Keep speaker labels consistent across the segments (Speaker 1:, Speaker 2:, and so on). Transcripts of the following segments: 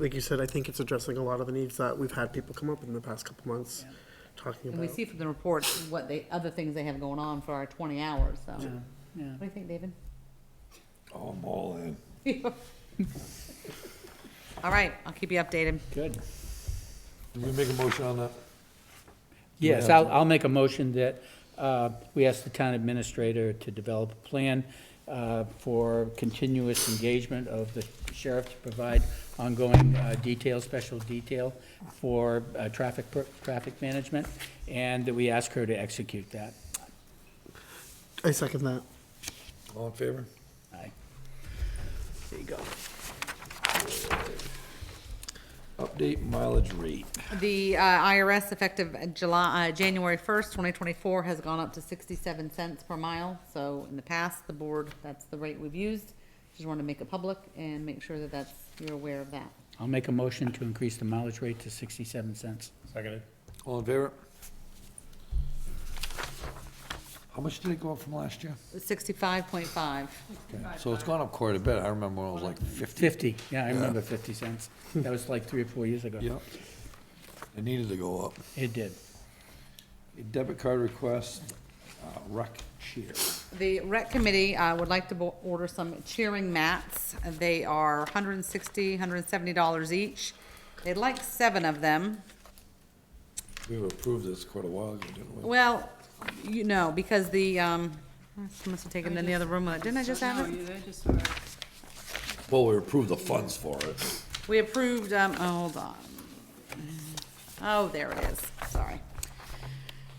Speaker 1: like you said, I think it's addressing a lot of the needs that we've had people come up in the past couple months talking
Speaker 2: And we
Speaker 1: about.
Speaker 2: see from the reports what they, other things they have going on for our twenty hours, so. What
Speaker 3: yeah.
Speaker 2: do you think, David?
Speaker 4: Oh, I'm all in.
Speaker 2: All right, I'll keep you updated.
Speaker 3: Good.
Speaker 4: Did we make a motion on that?
Speaker 3: Yes, I'll, I'll make a motion that uh, we ask the town administrator to develop a plan uh, for continuous engagement of the sheriff to provide ongoing uh, detail, special detail for uh, traffic, per- traffic management, and that we ask her to execute that.
Speaker 1: I second that.
Speaker 4: All in favor?
Speaker 3: Aye. There you go.
Speaker 4: Update mileage rate.
Speaker 2: The uh, IRS effective July, uh, January first, twenty twenty-four has gone up to sixty-seven cents per mile. So in the past, the board, that's the rate we've used. Just want to make it public and make sure that that's, you're aware of that.
Speaker 3: I'll make a motion to increase the mileage rate to 67 cents.
Speaker 5: Seconded.
Speaker 4: All in favor? How much did it go up from last year?
Speaker 2: Sixty-five point five.
Speaker 4: Okay, So it's gone up quite a bit. I remember when it was like fifty.
Speaker 3: 50, yeah, I remember 50 cents. That was like three or four years ago.
Speaker 4: Yep. It needed to go up.
Speaker 3: It did.
Speaker 4: Debit card request, uh, rec cheer.
Speaker 2: The rec committee, uh would like to bo- order some cheering mats. They are hundred and sixty, hundred and seventy dollars each. They'd like seven of them.
Speaker 4: We were approved this quite a while ago, didn't we?
Speaker 2: Well, you know, because the, um, I must have taken it in the other room. Uh, Didn't I just have it?
Speaker 6: No, I just saw it.
Speaker 4: Well, we approved the funds for it.
Speaker 2: We approved, um, oh, hold on. Oh, there it is, sorry.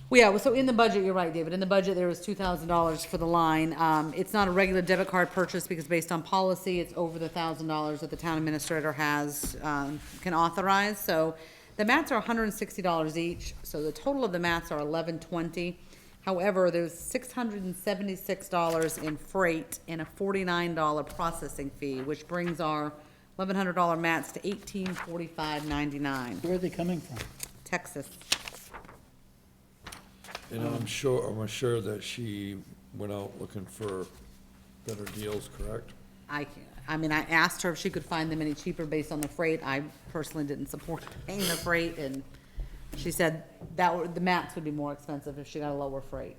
Speaker 2: Well, Yeah, well, so in the budget, you're right, David, in the budget, there was two thousand dollars for the line. Um, it's not a regular debit card purchase because based on policy, it's over the thousand dollars that the town administrator has, um, can authorize, so the mats are hundred and sixty dollars each, so the total of the mats are eleven twenty. However, there's six hundred and seventy-six dollars in freight and a forty-nine dollar processing fee, which brings our eleven hundred dollar mats to eighteen forty-five ninety-nine,
Speaker 3: Where are they coming from?
Speaker 2: Texas.
Speaker 4: And I'm sure, I'm sure that she went out looking for better deals, correct?
Speaker 2: I, can't- I mean, I asked her if she could find them any cheaper based on the freight. I personally didn't support paying the freight, and she said that were, the mats would be more expensive if she got a lower freight.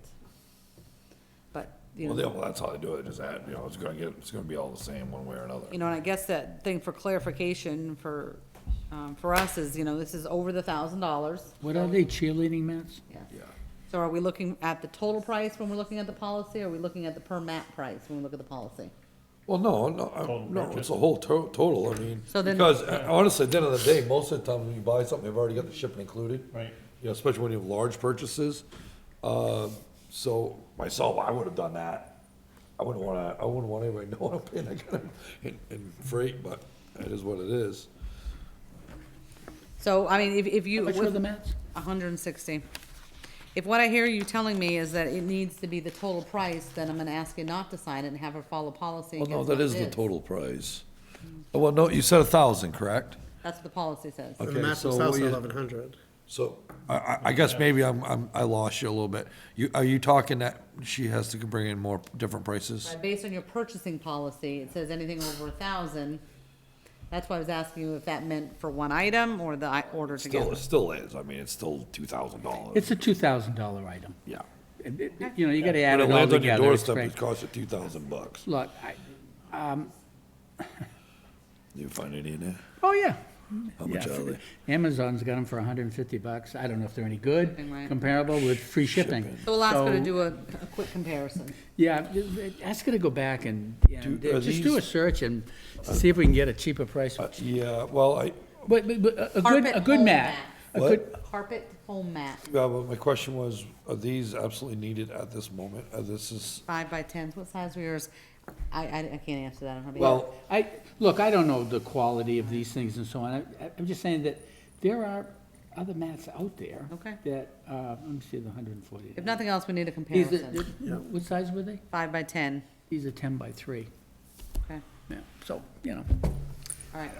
Speaker 2: But, you know.
Speaker 4: Well, they- well, that's how they do it, is that, you know, it's gonna get, it's gonna be all the same one way or another.
Speaker 2: You know, and I guess that thing for clarification for, um, for us is, you know, this is over the thousand dollars.
Speaker 3: What are they, cheerleading mats?
Speaker 4: Yeah.
Speaker 2: So are we looking at the total price when we're looking at the policy, or are we looking at the per mat price when we look at the policy?
Speaker 4: Well, no, no, I- no, it's a whole to- total, I mean,
Speaker 2: So then-
Speaker 4: because uh, honestly, at the end of the day, most of the time when you buy something, they've already got the shipping included.
Speaker 5: Right.
Speaker 4: You know, especially when you have large purchases. Uh, so myself, I would have done that. I wouldn't wanna, I wouldn't want anybody knowing I'm paying that kind of, in, in freight, but it is what it is.
Speaker 2: So, I mean, if, if you.
Speaker 3: Which were the mats?
Speaker 2: hundred and sixty. If what I hear you telling me is that it needs to be the total price, then I'm gonna ask you not to sign it and have her follow policy.
Speaker 4: Well, no,
Speaker 2: against
Speaker 4: that
Speaker 2: what
Speaker 4: is
Speaker 2: it
Speaker 4: the total price. Oh, Well, no, you said a thousand, correct?
Speaker 2: That's what the policy says.
Speaker 1: And
Speaker 4: Okay,
Speaker 1: the match
Speaker 4: so
Speaker 1: was
Speaker 4: what
Speaker 1: also
Speaker 4: you-
Speaker 1: eleven hundred.
Speaker 4: So, I, I, I guess maybe I'm, I'm, I lost you a little bit. You, are you talking that she has to bring in more different prices?
Speaker 2: Right, Based on your purchasing policy, it says anything over a thousand. That's why I was asking you if that meant for one item or the i- order
Speaker 4: Still,
Speaker 2: together.
Speaker 4: it still is, I mean, it's still two thousand dollars,
Speaker 3: It's a $2,000 item.
Speaker 4: yeah.
Speaker 3: And it- You know, you gotta add
Speaker 4: When
Speaker 3: it
Speaker 4: it
Speaker 3: all
Speaker 4: lands on your
Speaker 3: together. it's
Speaker 4: doorstep,
Speaker 3: great.
Speaker 4: it costs you two thousand bucks.
Speaker 3: Look, I,
Speaker 4: You find any in there?
Speaker 3: oh, yeah.
Speaker 4: How much
Speaker 3: Yeah,
Speaker 4: are they?
Speaker 3: Amazon's got them for 150 bucks. I don't know if they're any good,
Speaker 2: Shipping, right.
Speaker 3: comparable with free shipping.
Speaker 4: Shipping.
Speaker 2: So we'll ask her to
Speaker 3: So-
Speaker 2: do a, a quick comparison.
Speaker 3: Yeah, ask her to go back and, and
Speaker 4: Do- are
Speaker 3: just do a
Speaker 4: these-
Speaker 3: search and see if we can get a cheaper price.
Speaker 4: Uh,
Speaker 3: But,
Speaker 4: yeah, well, I,
Speaker 3: but, but a- a good,
Speaker 2: Carpet
Speaker 3: a good
Speaker 2: home
Speaker 3: mat.
Speaker 2: mat.
Speaker 3: a
Speaker 4: What?
Speaker 3: good-
Speaker 2: Carpet home mat,
Speaker 4: yeah, but my question was, are these absolutely needed at this moment? Uh, this is,
Speaker 2: five by tens, what size were yours? I, I, I can't answer that on her behalf.
Speaker 4: well,
Speaker 3: I, look, I don't know the quality of these things and so on. I- I- I'm just saying that there are other mats out there.
Speaker 2: Okay.
Speaker 3: That, uh, let me see, the 140.
Speaker 2: If nothing else, we need a
Speaker 3: These are-
Speaker 2: comparison.
Speaker 3: they're- What size were they?
Speaker 2: Five by ten,
Speaker 3: These are 10 by 3.
Speaker 2: okay.
Speaker 3: Yeah, so, you know.
Speaker 2: All right,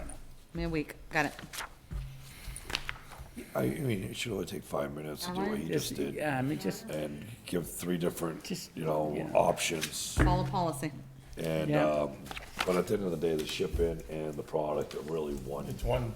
Speaker 2: me a week, got it.
Speaker 4: I, I mean, it should only take five minutes to do what he just
Speaker 3: Uh-huh. Just,
Speaker 4: did.
Speaker 3: yeah, I mean, just,
Speaker 4: And give three different,
Speaker 3: Just-
Speaker 4: you know,
Speaker 3: yeah.
Speaker 4: options
Speaker 2: Follow policy.
Speaker 4: and,
Speaker 3: Yeah.
Speaker 4: um, But at the end of the day, the shipping and the product are really one.
Speaker 5: It's one